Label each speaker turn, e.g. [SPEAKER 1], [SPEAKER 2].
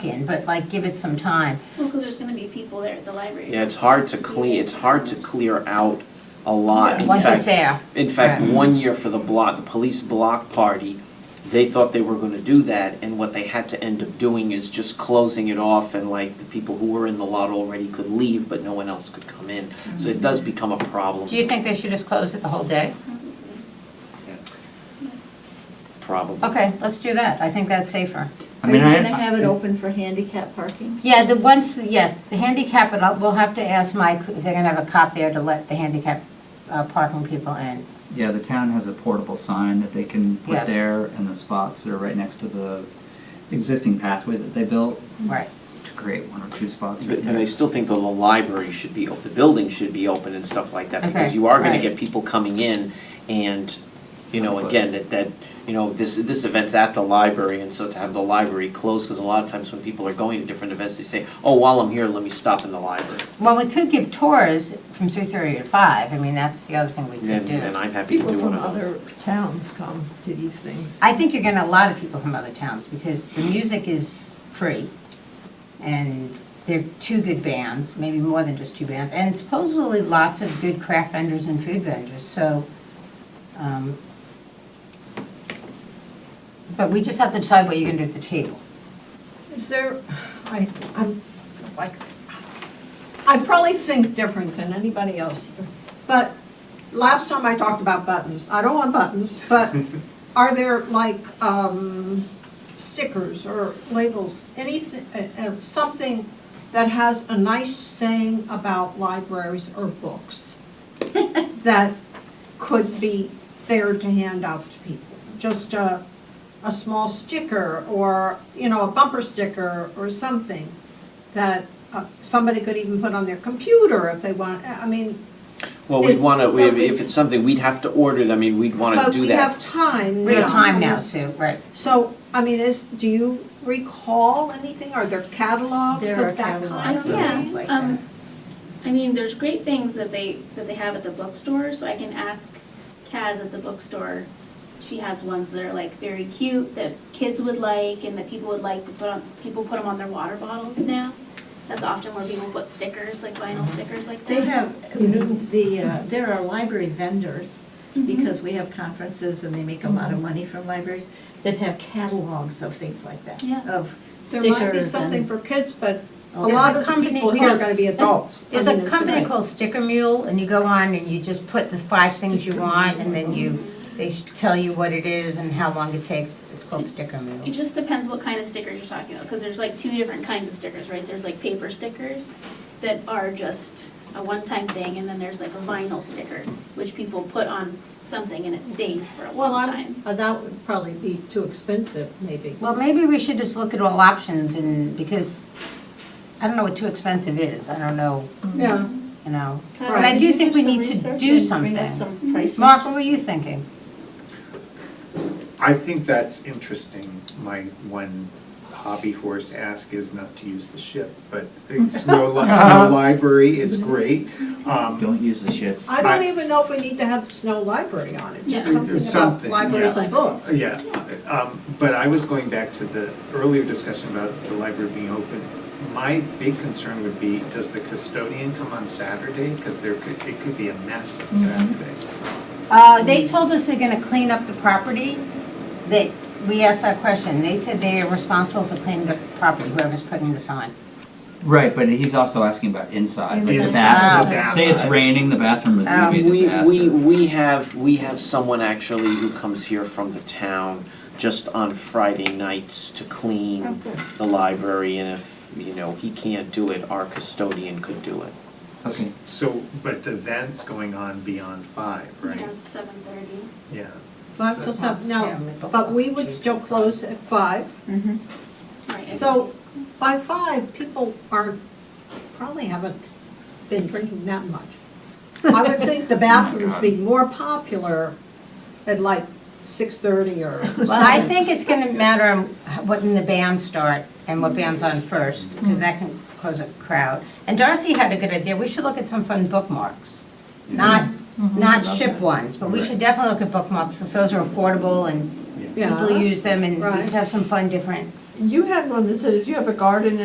[SPEAKER 1] in, but like, give it some time.
[SPEAKER 2] Well, because there's gonna be people there at the library.
[SPEAKER 3] Yeah, it's hard to clean, it's hard to clear out a lot. In
[SPEAKER 1] Once it's
[SPEAKER 3] fact,
[SPEAKER 1] there,
[SPEAKER 3] in fact,
[SPEAKER 1] Right.
[SPEAKER 3] one year for the block, the police block party, they thought they were gonna do that, and what they had to end up doing is just closing it off, and like, the people who were in the lot already could leave, but no one else could come in. So it does become a problem,
[SPEAKER 1] do you think they should just close it the whole day?
[SPEAKER 3] problem.
[SPEAKER 1] Okay, let's do that, I think that's safer.
[SPEAKER 4] I
[SPEAKER 5] Are you
[SPEAKER 4] mean, I.
[SPEAKER 5] gonna have it open for handicap parking?
[SPEAKER 1] Yeah, the once, yes, the handicap, and I'll- we'll have to ask Mike if they're gonna have a cop there to let the handicap uh, parking people in.
[SPEAKER 4] Yeah, the town has a portable sign that they can
[SPEAKER 1] Yes.
[SPEAKER 4] put there in the spots that are right next to the existing pathway that they built
[SPEAKER 1] Right.
[SPEAKER 4] to create one or two spots right
[SPEAKER 3] But but I
[SPEAKER 4] there.
[SPEAKER 3] still think that the library should be, op- the building should be open and stuff like that, because
[SPEAKER 1] Okay,
[SPEAKER 3] you are gonna
[SPEAKER 1] right.
[SPEAKER 3] get people coming in and, you know,
[SPEAKER 4] But-
[SPEAKER 3] again, that, that, you know, this, this event's at the library, and so to have the library closed, because a lot of times when people are going to different events, they say, oh, while I'm here, let me stop in the library.
[SPEAKER 1] Well, we could give tours from three thirty to five, I mean, that's the other thing we could
[SPEAKER 3] And,
[SPEAKER 1] do.
[SPEAKER 3] and I'm happy to
[SPEAKER 5] People
[SPEAKER 3] do one
[SPEAKER 5] from
[SPEAKER 3] of those.
[SPEAKER 5] other towns come to these things.
[SPEAKER 1] I think you're getting a lot of people from other towns, because the music is free, and they're two good bands, maybe more than just two bands, and supposedly lots of good craft vendors and food vendors, so, um, but we just have to decide what you're gonna do at the table.
[SPEAKER 5] Is there, I, I'm, like, I probably think different than anybody else here. But last time I talked about buttons, I don't want buttons, but are there like, um, stickers or labels, anything, uh, uh, something that has a nice saying about libraries or books that could be there to hand out to people? Just a, a small sticker or, you know, a bumper sticker or something that uh, somebody could even put on their computer if they want, I mean,
[SPEAKER 3] Well, we'd
[SPEAKER 5] Is-
[SPEAKER 3] wanna, we-
[SPEAKER 5] but we-
[SPEAKER 3] if it's something, we'd have to order it, I mean, we'd wanna
[SPEAKER 5] but
[SPEAKER 3] do
[SPEAKER 5] we
[SPEAKER 3] that.
[SPEAKER 5] have time now.
[SPEAKER 1] We have time now, Sue, right.
[SPEAKER 5] So, I mean, is, do you recall anything? Are there catalogs There are of that kind of
[SPEAKER 2] catalogs of
[SPEAKER 5] things
[SPEAKER 2] things
[SPEAKER 5] like that?
[SPEAKER 2] Um, I mean, there's great things that they, that they have at the bookstore, so I can ask Kaz at the bookstore. She has ones that are like very cute, that kids would like, and that people would like to put on, people put them on their water bottles now. That's often where people put stickers, like vinyl stickers like that.
[SPEAKER 6] They have new, the, uh, there are library vendors, because we have conferences and they make a lot of money from libraries, that have catalogs of things like that,
[SPEAKER 2] Yeah.
[SPEAKER 6] of
[SPEAKER 5] There might be
[SPEAKER 6] stickers
[SPEAKER 5] something
[SPEAKER 6] and.
[SPEAKER 5] for kids, but a
[SPEAKER 1] There's
[SPEAKER 5] lot
[SPEAKER 1] a
[SPEAKER 5] of the
[SPEAKER 1] company
[SPEAKER 5] people here are
[SPEAKER 1] called-
[SPEAKER 5] gonna be adults. I
[SPEAKER 1] There's a
[SPEAKER 5] mean, it's
[SPEAKER 1] company
[SPEAKER 5] like-
[SPEAKER 1] called Sticker Mule, and you go on and you just put the five things you want, and then you, they s- tell you what it is and how long it takes. It's called Sticker
[SPEAKER 2] It
[SPEAKER 1] Mule.
[SPEAKER 2] just depends what kind of stickers you're talking about, because there's like two different kinds of stickers, right? There's like paper stickers that are just a one-time thing, and then there's like a vinyl sticker, which people put on something and it stays for a
[SPEAKER 5] Well,
[SPEAKER 2] long
[SPEAKER 5] I'm,
[SPEAKER 2] time.
[SPEAKER 5] uh, that would probably be too expensive, maybe.
[SPEAKER 1] Well, maybe we should just look at all options and, because I don't know what too expensive is. I don't know,
[SPEAKER 5] Yeah,
[SPEAKER 1] you know.
[SPEAKER 5] Right.
[SPEAKER 1] But I do think we need to do something. Mark, what were you thinking?
[SPEAKER 7] I think that's interesting. My one hobby horse ask is not to use the ship, but Snow, Li- Snow Library is great. Um,
[SPEAKER 4] Don't use the shit.
[SPEAKER 5] I don't
[SPEAKER 7] I-
[SPEAKER 5] even know if we need to have Snow Library on it, just
[SPEAKER 2] Yeah.
[SPEAKER 5] something about
[SPEAKER 7] Something,
[SPEAKER 5] libraries
[SPEAKER 2] yeah.
[SPEAKER 5] and books.
[SPEAKER 7] yeah, um, but I was going back to the earlier discussion about the library being open. My big concern would be, does the custodian come on Saturday? Because there could, it could be a mess on Saturday.
[SPEAKER 1] Uh, they told us they're gonna clean up the property. They, we asked that question. They said they are responsible for cleaning up the property, whoever's putting this on.
[SPEAKER 4] Right, but he's also asking about inside, like the
[SPEAKER 7] Inside.
[SPEAKER 4] bathroom.
[SPEAKER 7] The
[SPEAKER 4] Say it's
[SPEAKER 7] bathroom.
[SPEAKER 4] raining, the bathroom is gonna be a
[SPEAKER 3] Um, we,
[SPEAKER 4] disaster.
[SPEAKER 3] we, we have, we have someone actually who comes here from the town just on Friday nights to clean the library, and if, you know, he can't do it, our custodian could do it.
[SPEAKER 4] Okay,
[SPEAKER 7] So, but the event's going on beyond five, right?
[SPEAKER 2] Yeah, it's seven thirty.
[SPEAKER 7] Yeah.
[SPEAKER 5] Not
[SPEAKER 7] So-
[SPEAKER 5] till seven, no,
[SPEAKER 1] Yeah, the book
[SPEAKER 5] but we
[SPEAKER 1] lots
[SPEAKER 5] would
[SPEAKER 1] of
[SPEAKER 5] still
[SPEAKER 1] cheese.
[SPEAKER 5] close at five.
[SPEAKER 2] Right.
[SPEAKER 5] So by five, people are, probably haven't been drinking that much. I would think the bathrooms be more popular at like six thirty or seven.
[SPEAKER 1] Well, I think it's gonna matter on what when the bands start and what band's on first, because that can cause a crowd. And Darcy had a good idea, we should look at some fun bookmarks, not,
[SPEAKER 5] Mm-hmm.
[SPEAKER 1] not ship ones, but we should definitely look at bookmarks, because those are affordable and
[SPEAKER 5] Yeah.
[SPEAKER 1] people use them and we
[SPEAKER 5] Right.
[SPEAKER 1] could have some fun different
[SPEAKER 8] you had one that said if you have a garden